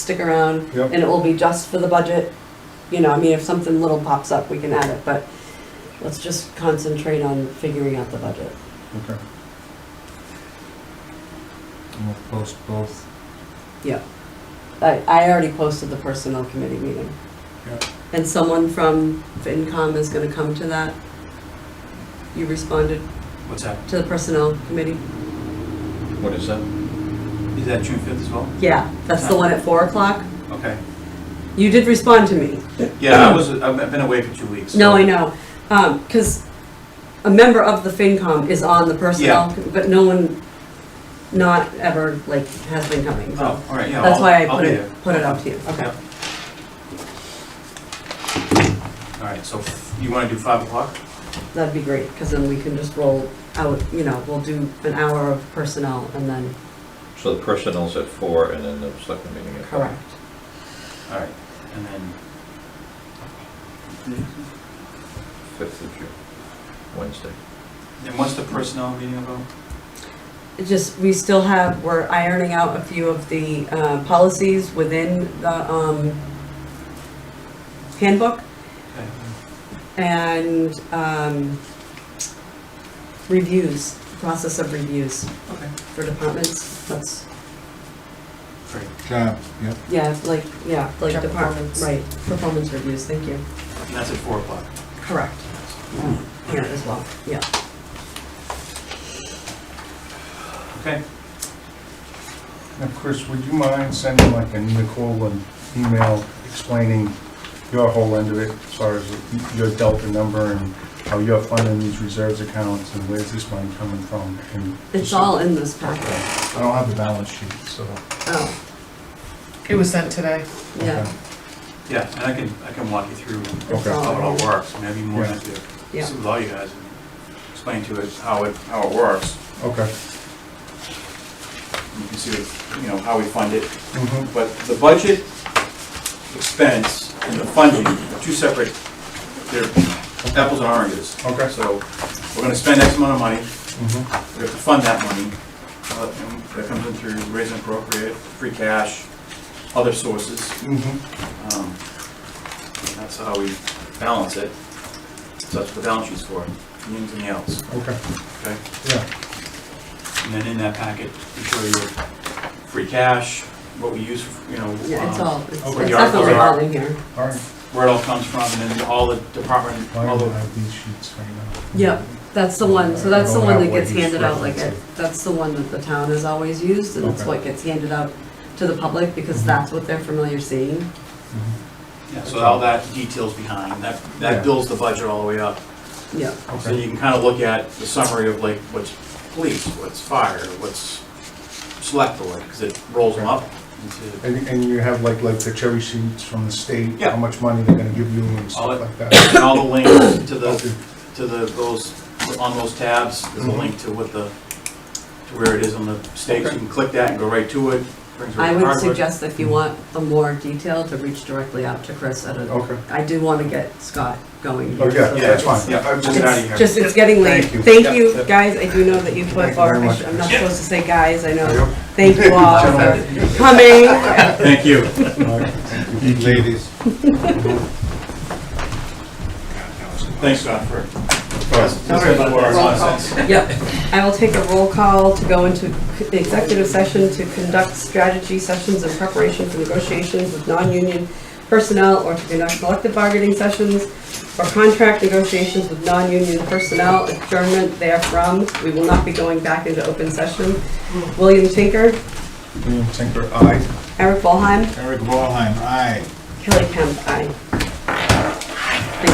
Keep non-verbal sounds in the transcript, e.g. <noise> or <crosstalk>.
stick around, Yep. and it will be just for the budget. You know, I mean, if something little pops up, we can add it, but let's just concentrate on figuring out the budget. Okay. And We'll post both. I, I already posted the personnel committee meeting. Yep. And someone from FinCom is gonna come to that. You responded What's that? to the personnel committee? What is that? Is that June fifth as well? Yeah, that's the one at four o'clock. Okay. You did respond to me. Yeah, I was, I've I've been away for two weeks. so- No, I know, Um, 'cause cause a member of the FinCom is on the personnel, but no one, not ever, like, has been coming, so. Oh, all right, yeah. That's I'll- why I I'll put be it, there. put it up to you, okay. Yep. All right, so f- you want to do five o'clock? That'd be great, cause then we can just roll out, you know, we'll do an hour of personnel and then, So the personnel's at four and then the selectmen meeting at five? correct. All right, and then. Fifth of June, Wednesday. And what's the personnel meeting about? It just, we still have, we're ironing out a few of the, uh, policies within the, um, handbook. Okay. and um, reviews, process of reviews Okay, for departments. That's, great. Job, yep. yeah, like, yeah, like Job department, performance. right, performance reviews, thank you. And that's at four o'clock. Correct. Here as well, yeah. Okay, Now, Chris, would you mind sending like a Nicole an email explaining your whole end of it, as far as your delta number and how you're funding these reserves accounts and where's this money coming from? and- It's all in this packet. I don't have the balance sheet, so. Oh, It was sent today. yeah, yeah, and I can, I can walk you through it's Okay. how it all, all in. works, and I'd be more than happy to Yeah. sit with all you guys and explain to us how it, how it works. Okay. You can see, what- you know, how we fund it, Mhm. But the budget expense and the funding are two separate, they're apples and oranges. Okay. So we're gonna spend X amount of money, Mhm. we have to fund that money. Uh, and That comes in through raising appropriate, free cash, other sources. Mhm. Um, and That's how we balance it. So that's what the balance sheet's for, anything else, Okay, okay? yeah. And then in that packet, we show you free cash, what we use, for you know. yeah, it's um, all, it's Okay. it's definitely all in here. Oh, All right. where it all comes from, and then all the department, I all don't the, have these sheets right now. Yep, that's the one, so that's the I don't one have that what gets he's handed out like it, referencing. that's the one that the town has always used, and it's Okay. what gets handed out to the public, because Mhm. that's what they're familiar seeing. Mhm. yeah, so all that details behind, that, Yeah. that builds the budget all the way up. Yeah, So Okay. you can kind of look at the summary of like, what's police, what's fire, what's select board, because it rolls them up into, And, and you have like, like the cherry sheets from the state, Yeah. how much money they're gonna give you and All stuff it- like that. and all the links to Okay. the, to the, those, on those tabs, there's a Mhm. link to what the, to where it is on the stakes, you can click that and go right to it, brings I right to would hardwood. suggest if you want a more detail to reach directly out to Chris at a, Okay. I do want to get Scott going. Oh, here, yeah, so yeah, that's it's- fine. Yeah, I'm just out of It's here. just, it's getting late. Thank you. Thank Yeah. you, guys, I do know that you Thank put you far, very I much. sh- I'm not supposed to say guys, I know. Yep. Thank you all for Gentlemen. coming. <laughs> Thank you. All right, Thank you. Ladies. Thanks, Scott, for. Sorry for our nonsense. Yep, I will take a roll call to go into c- executive session to conduct strategy sessions in preparation for negotiations with non-union personnel or to conduct collective bargaining sessions or contract negotiations with non-union personnel, adjournment therefrom. We will not be going back into open session. William Tinker, William Tinker, aye. Eric Ballheim, Eric Wallheim, aye. Kelly Kemp, aye.